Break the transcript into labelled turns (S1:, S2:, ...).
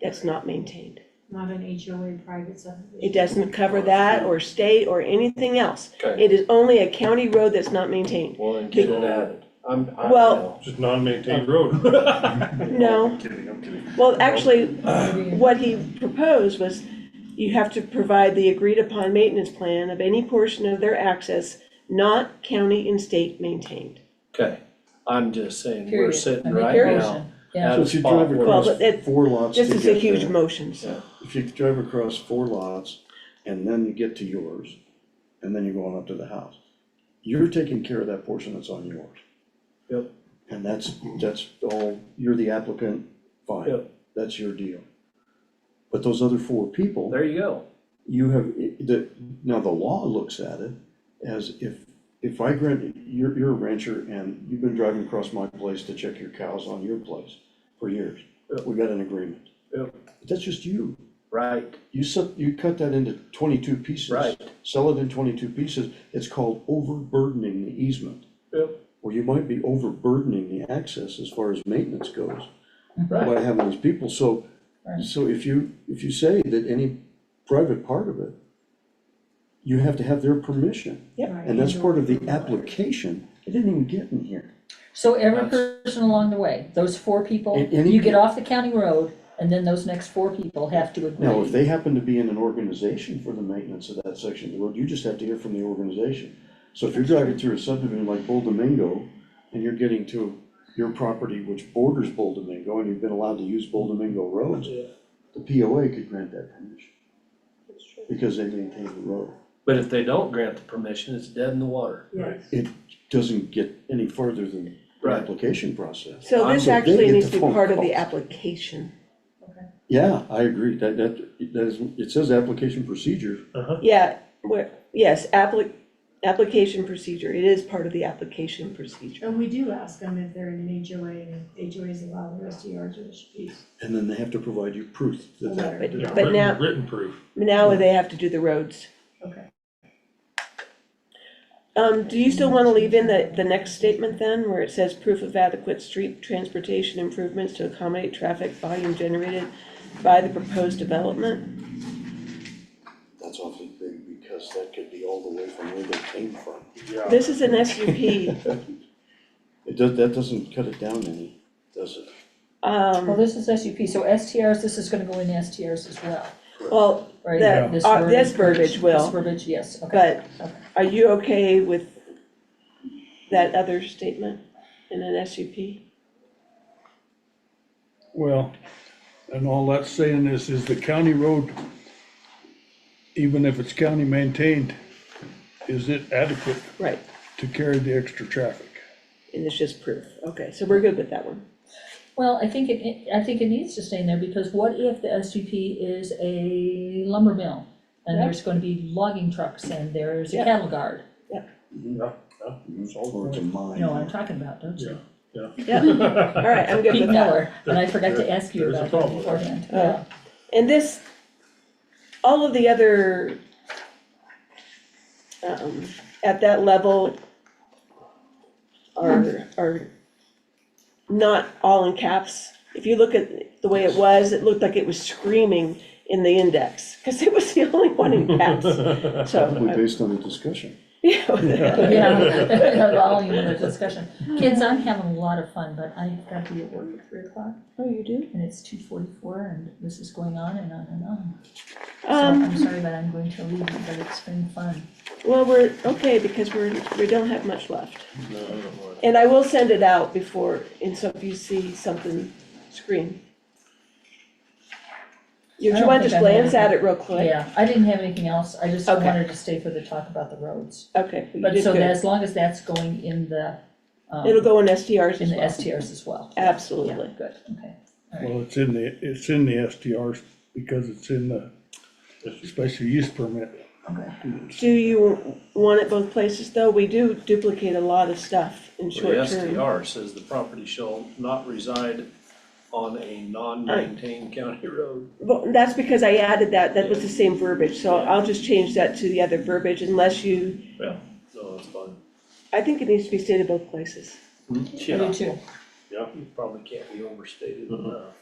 S1: that's not maintained.
S2: not an HOA private subdivision.
S1: It doesn't cover that or state or anything else.
S3: Okay,
S1: It is only a county road that's not maintained.
S3: well, then get it added. I'm, I
S1: Well-
S4: Just non-maintained
S1: Oh.
S4: road.
S1: No,
S5: Kidding, I'm kidding.
S1: well, actually,
S2: Maybe
S1: what he proposed was you have to provide the agreed upon maintenance plan of any portion of their access not county and state maintained.
S3: Okay, I'm just saying, we're
S6: Period.
S3: sitting
S6: I mean,
S3: right
S6: period.
S3: now
S6: Yeah,
S3: at
S5: So
S3: a
S5: if you
S3: spot
S5: drive
S3: where,
S1: Well,
S5: across
S1: but it-
S5: four lots to
S1: This is a
S5: get
S1: huge
S5: there,
S1: motion, so.
S5: If you drive across four lots and then you get to yours, and then you're going up to the house, you're taking care of that portion that's on yours.
S3: Yep.
S5: And that's, that's all, you're the applicant, fine,
S3: Yep.
S5: that's your deal. But those other four people,
S3: there you go.
S5: you have, the, now the law looks at it as if, if I grant, you're, you're a rancher and you've been driving across my place to check your cows on your place for years.
S3: Yep.
S5: We got an agreement.
S3: Yep.
S5: But That's just you.
S3: Right,
S5: You set, you cut that into twenty-two pieces.
S3: Right.
S5: Sell it in twenty-two pieces. It's called overburdening the easement.
S3: Yep.
S5: Or you might be overburdening the access as far as maintenance goes
S6: Mm-hmm.
S3: right.
S5: by having these people, so,
S6: Right.
S5: so if you, if you say that any private part of it, you have to have their permission,
S2: Right,
S5: and that's
S2: HOA
S5: part of the
S2: private.
S5: application, it didn't even get in here.
S6: so every
S3: That's-
S6: person along the way, those four people,
S5: And- and he-
S6: you get off the county road, and then those next four people have to
S5: Now, if
S6: agree.
S5: they happen to be in an organization for the maintenance of that section of the road, you just have to hear from the organization. So if you're driving through a subdivision like Bull Domingo, and you're getting to your property which borders Bull Domingo, and you've been allowed to use Bull Domingo roads, the POA could grant that permission, because they maintain the road.
S3: But if they don't grant the permission, it's dead in the water.
S2: Yes.
S5: it doesn't get any further than the
S3: Right.
S5: application process.
S1: So this
S5: So they
S1: actually
S5: get
S1: needs
S5: the
S1: to be
S5: phone
S1: part of
S5: calls.
S1: the application.
S5: Yeah, I agree, that, that, that is, it says application procedure,
S1: Yeah, where, yes, applic, application procedure, it is part of the application procedure.
S2: And we do ask them if they're in an HOA, and if HOAs allow the rest of yards or disputes.
S5: and then they have to provide you proof that that.
S1: But,
S4: Yeah,
S1: but
S4: written-
S1: now,
S4: Written proof.
S1: now they have to do the roads.
S2: Okay.
S1: Um, do you still wanna leave in the, the next statement then, where it says proof of adequate street transportation improvements to accommodate traffic volume generated by the proposed development?
S5: That's awfully big, because that could be all the way from where they came from.
S4: Yeah.
S1: This is an SUP,
S5: It does, that doesn't cut it down any, does it?
S6: Well,
S1: um,
S6: this is SUP, so STRs, this is gonna go in the STRs as well,
S1: well,
S6: right?
S1: The-
S6: This
S1: uh, this verbiage will.
S6: This verbiage, yes, okay.
S1: But are you okay with that other statement in an SUP?
S7: Well, and all that's saying is, is the county road, even if it's county maintained, is it adequate
S1: Right,
S7: to carry the extra traffic?
S1: and it's just proof. Okay, so we're good with that one.
S6: Well, I think it- it, I think it needs to stay in there, because what if the SUP is a lumber mill? And
S1: Yeah.
S6: there's gonna be logging trucks, and there's
S1: Yeah.
S6: a cattle guard,
S5: Or it's a mine.
S6: you know what I'm talking about, don't you?
S1: Yeah, all right, I'm good
S6: Pete
S1: with that.
S6: Miller, and I forgot to ask you
S4: There's a
S6: about that
S4: problem with that.
S6: beforehand,
S1: Oh.
S6: yeah.
S1: And this, all of the other, um, at that level are, are not all in caps. If you look at the way it was, it looked like it was screaming in the index, because it was the only one in caps, so.
S5: Probably based on the discussion.
S1: Yeah.
S6: Yeah, volume of the discussion. Kids, I'm having a lot of fun, but I've got to be at work at three o'clock,
S1: Oh, you do?
S6: and it's two forty-four, and this is going on and on and on. So
S1: Um,
S6: I'm sorry, but I'm going to leave, but it's been fun.
S1: well, we're, okay, because we're, we don't have much left.
S3: No, I don't want it.
S1: And I will send it out before, and so if you see something, scream. You,
S6: I
S1: you
S6: don't
S1: wanna
S6: think
S1: just
S6: I have
S1: glance at it real quick?
S6: Yeah, I didn't have anything else, I just
S1: Okay.
S6: wanted to stay for the talk about the roads.
S1: Okay, but
S6: But
S1: you did
S6: so that,
S1: good.
S6: as long as that's going in the, um,
S1: It'll go in SDRs
S6: in
S1: as
S6: the
S1: well.
S6: STRs as well. Yeah,
S1: Absolutely.
S6: Good, okay.
S7: Well, it's in the, it's in the STRs because it's in the special use permit.
S1: Do you want it both places though? We do duplicate a lot of stuff in
S3: Well, The
S1: short term.
S3: STR says the property shall not reside on a non-maintained county road.
S1: Well, that's because I added that, that was the same verbiage, so I'll just change that to the other verbiage unless you,
S3: Yeah. So that's fine.
S1: I think it needs to be stated both places.
S3: Hmm?
S6: I do too.
S1: Mm-hmm.
S3: You probably can't be overstated enough.